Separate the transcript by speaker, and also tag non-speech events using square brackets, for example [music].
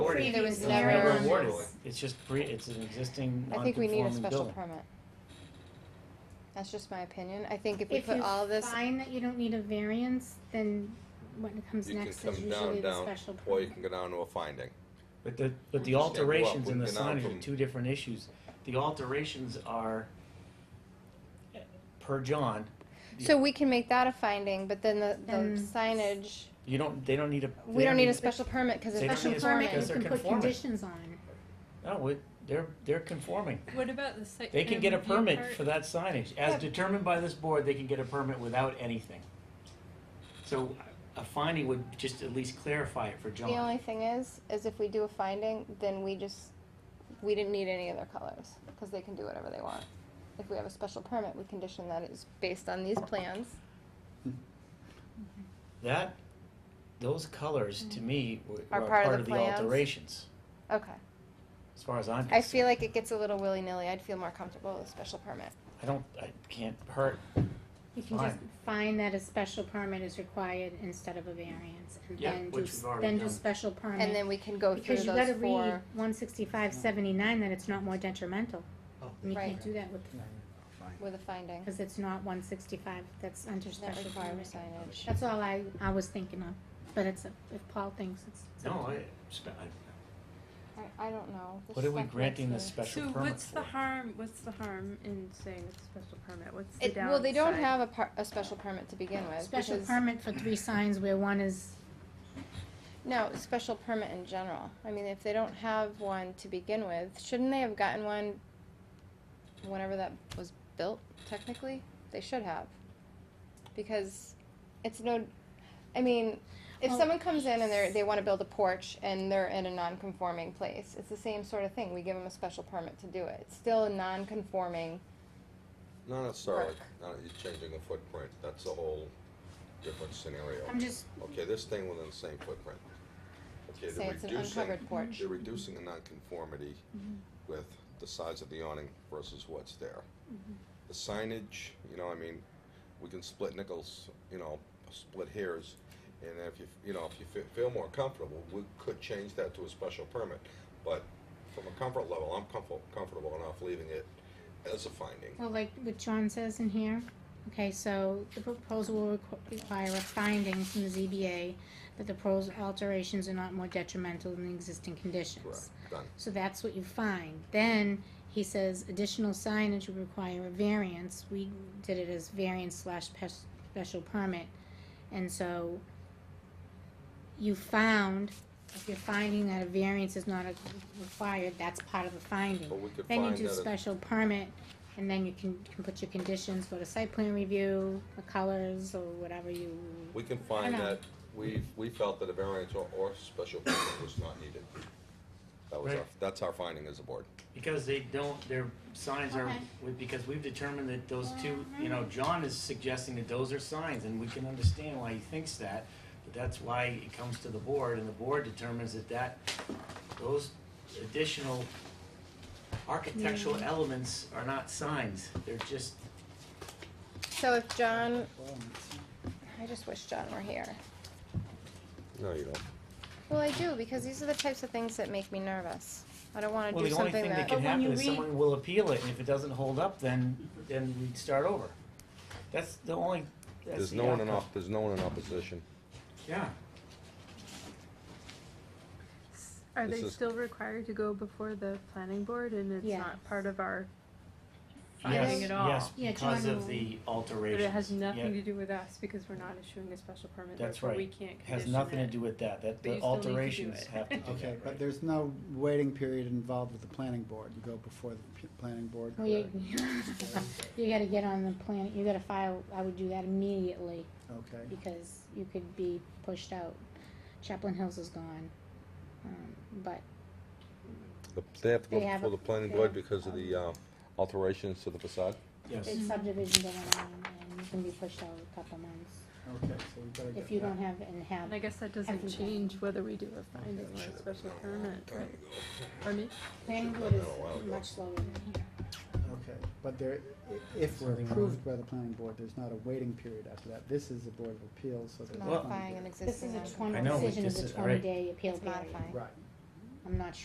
Speaker 1: me, there was
Speaker 2: It's
Speaker 1: never-
Speaker 2: not
Speaker 1: Never.
Speaker 2: rewarded.
Speaker 3: It's just pre, it's an existing
Speaker 4: I think we need a
Speaker 3: non-conforming
Speaker 4: special
Speaker 3: building.
Speaker 4: permit. That's just my opinion. I think if we
Speaker 1: If
Speaker 4: put
Speaker 1: you
Speaker 4: all this,
Speaker 1: find that you don't need a variance, then what comes
Speaker 5: You can
Speaker 1: next is
Speaker 5: come down,
Speaker 1: usually the
Speaker 5: down,
Speaker 1: special
Speaker 5: or you
Speaker 1: permit.
Speaker 5: can go down to a finding.
Speaker 3: But the, but
Speaker 5: Understand.
Speaker 3: the alterations
Speaker 5: Well,
Speaker 3: in the
Speaker 5: we can now
Speaker 3: signage are
Speaker 5: from-
Speaker 3: two different issues. The alterations are, eh, per John,
Speaker 4: so we can make that a finding, but then the,
Speaker 1: Then-
Speaker 4: the signage,
Speaker 3: you don't, they don't need a. they
Speaker 4: we don't need a
Speaker 1: need-
Speaker 4: special permit because
Speaker 3: They don't
Speaker 4: it's
Speaker 3: need
Speaker 1: Special
Speaker 3: a
Speaker 1: permit,
Speaker 3: because
Speaker 1: you
Speaker 4: conforming.
Speaker 1: can
Speaker 3: they're
Speaker 1: put
Speaker 3: conforming.
Speaker 1: conditions on.
Speaker 3: No, we- they're, they're conforming.
Speaker 2: What about the site?
Speaker 3: They can
Speaker 2: plan
Speaker 3: get a
Speaker 2: review
Speaker 3: permit
Speaker 2: part?
Speaker 3: for that signage. As
Speaker 4: Yeah.
Speaker 3: determined by this board, they can get a permit without anything. So a finding would just at least clarify it for
Speaker 4: The only
Speaker 3: John.
Speaker 4: thing is, is if we do a finding, then we just, we didn't need any other colors because they can do whatever they want. If we have a special permit, we condition that it's based on these plans.
Speaker 3: That, those colors, to me, were
Speaker 4: Mm-hmm. Are
Speaker 3: were
Speaker 4: part of
Speaker 3: part
Speaker 4: the
Speaker 3: of the
Speaker 4: plans?
Speaker 3: alterations,
Speaker 4: Okay.
Speaker 3: as far as I'm
Speaker 4: I
Speaker 3: concerned.
Speaker 4: feel like it gets a little willy nilly. I'd feel more comfortable with a special permit.
Speaker 3: I don't, I can't hurt,
Speaker 1: You can just find that a special permit is required instead of a variance, and
Speaker 3: Yeah,
Speaker 1: then do,
Speaker 3: which
Speaker 1: s-
Speaker 3: we've already
Speaker 1: then do
Speaker 3: done.
Speaker 1: special permit.
Speaker 4: And then we can go through
Speaker 1: Because you gotta
Speaker 4: those
Speaker 1: read
Speaker 4: four.
Speaker 1: one sixty-five seventy-nine, that it's not more detrimental,
Speaker 3: Oh.
Speaker 1: and you
Speaker 4: Right.
Speaker 1: can't do that with,
Speaker 4: With a finding.
Speaker 1: because it's not one sixty-five, that's under
Speaker 4: That
Speaker 1: special permit.
Speaker 4: requires signage.
Speaker 1: That's all I, I was thinking of, but it's, if Paul thinks it's. it's
Speaker 3: no,
Speaker 1: okay.
Speaker 3: I, spe- I-
Speaker 4: I, I don't know. This
Speaker 3: what are we
Speaker 4: stuff makes
Speaker 3: granting
Speaker 4: me-
Speaker 3: this special
Speaker 2: So
Speaker 3: permit for?
Speaker 2: what's the harm, what's the harm in saying it's a special permit? What's the
Speaker 4: It,
Speaker 2: downside?
Speaker 4: well, they don't have a par, a special permit to begin with.
Speaker 1: Special
Speaker 4: because-
Speaker 1: permit for three signs where one is,
Speaker 4: No, special permit in general. I mean, if they don't have one to begin with, shouldn't they have gotten one whenever that was built, technically? They should have. Because it's no, I mean, if
Speaker 1: Well-
Speaker 4: someone comes in and they're, they wanna build a porch and they're in a non-conforming place, it's the same sort of thing. We give them a special permit to do it. It's still a non-conforming
Speaker 5: Not necessarily,
Speaker 4: Work.
Speaker 5: not, you're changing the footprint, that's a whole different scenario.
Speaker 1: I'm just,
Speaker 5: Okay, this thing within the same footprint. Okay,
Speaker 4: Say
Speaker 5: they're
Speaker 4: it's an
Speaker 5: reducing,
Speaker 4: uncovered porch.
Speaker 5: they're reducing a nonconformity
Speaker 1: Mm-hmm.
Speaker 5: with the size of the awning versus what's there.
Speaker 1: Mm-hmm.
Speaker 5: The signage, you know, I mean, we can split nickels, you know, split hairs, and if you, you know, if you fe- feel more comfortable, we could change that to a special permit. But from a comfort level, I'm comfortable, comfortable enough leaving it as a finding.
Speaker 1: well, like what John says in here, okay, so the proposal will requ- require a finding from the ZBA that the proposed alterations are not more detrimental than the existing
Speaker 5: Correct,
Speaker 1: conditions.
Speaker 5: done.
Speaker 1: So that's what you find. Then he says additional signage would require a variance. We did it as variance slash pes- special permit. And so you found, if you're finding that a variance is not a- required, that's part of the finding.
Speaker 5: But we could
Speaker 1: Then you
Speaker 5: find
Speaker 1: do
Speaker 5: that it-
Speaker 1: special permit and then you can, can put your conditions, go to site plan review, the colors or whatever you.
Speaker 5: We can find
Speaker 1: I know.
Speaker 5: that, we, we felt that a variance or, or special permit was not needed. That was our,
Speaker 3: Right.
Speaker 5: that's our finding as a board.
Speaker 3: Because they don't, their signs are,
Speaker 1: Okay.
Speaker 3: we- because we've determined that those two,
Speaker 4: Mm-hmm.
Speaker 3: you know, John is suggesting that those are signs, and we can understand why he thinks that, but that's why it comes to the board, and the board determines that that, those additional architectural elements are not signs, they're just,
Speaker 4: So if John, I just wish John were here.
Speaker 5: No, you don't.
Speaker 4: Well, I do because these are the types of things that make me nervous. I don't want to
Speaker 3: well,
Speaker 4: do
Speaker 3: the only
Speaker 4: something
Speaker 3: thing that
Speaker 4: that.
Speaker 3: can
Speaker 1: But when you
Speaker 3: happen is
Speaker 1: read-
Speaker 3: someone will appeal it, and if it doesn't hold up, then, then we start over. That's the only, that's
Speaker 5: There's
Speaker 3: the
Speaker 5: no one in,
Speaker 3: outcome.
Speaker 5: op- there's no one in opposition.
Speaker 3: Yeah,
Speaker 2: Are
Speaker 5: This
Speaker 2: they
Speaker 5: is-
Speaker 2: still required to go before the planning board and it's
Speaker 1: Yes.
Speaker 2: not part of our
Speaker 3: yes,
Speaker 2: finding at all?
Speaker 3: yes,
Speaker 1: Yeah,
Speaker 3: because
Speaker 1: John
Speaker 3: of
Speaker 1: will-
Speaker 3: the
Speaker 2: But
Speaker 3: alterations.
Speaker 2: it has
Speaker 3: Yeah.
Speaker 2: nothing to do with us because we're not issuing a special permit,
Speaker 3: That's
Speaker 2: therefore
Speaker 3: right.
Speaker 2: we can't condition it.
Speaker 3: has nothing to do with that, that
Speaker 2: But you
Speaker 3: the
Speaker 2: still need to do
Speaker 3: alterations
Speaker 2: it.
Speaker 3: have to do that,
Speaker 6: Okay, but
Speaker 3: right?
Speaker 6: there's no waiting period involved with the planning board. You go before the p- planning board.
Speaker 1: Well, Oh,
Speaker 5: [laughs]
Speaker 1: you, [laughs] you gotta get on the planet, you gotta file, I would do that immediately.
Speaker 6: Okay,
Speaker 1: because you could be pushed out. Chaplain Hills is gone, um, but
Speaker 5: The- They have to go
Speaker 1: They have
Speaker 5: before
Speaker 1: a-
Speaker 5: the planning
Speaker 1: they
Speaker 5: board
Speaker 1: have-
Speaker 5: because of the, uh, alterations to the facade.
Speaker 3: Yes,
Speaker 1: it's subdivision going on, and you can be pushed out a couple months
Speaker 6: okay, so we better get that.
Speaker 1: if you don't have and have.
Speaker 2: And I guess that doesn't
Speaker 1: Everything.
Speaker 2: change whether we do a finding or a special permit, right? I mean,
Speaker 1: Planning board is much slower than here.
Speaker 6: Okay, but there, i- if we're
Speaker 3: Something
Speaker 6: approved by the planning board, there's not a waiting period after that. This is the Board of Appeals, so there's. a planning
Speaker 4: Modifying an
Speaker 6: board.
Speaker 1: This
Speaker 4: existing
Speaker 1: is a
Speaker 4: non
Speaker 1: twenty
Speaker 3: I know,
Speaker 1: decision
Speaker 3: this
Speaker 1: is a
Speaker 3: is-
Speaker 1: twenty
Speaker 3: right.
Speaker 1: day appeal
Speaker 4: It's
Speaker 1: period.
Speaker 4: modifying.
Speaker 6: Right,
Speaker 1: I'm I'm not sure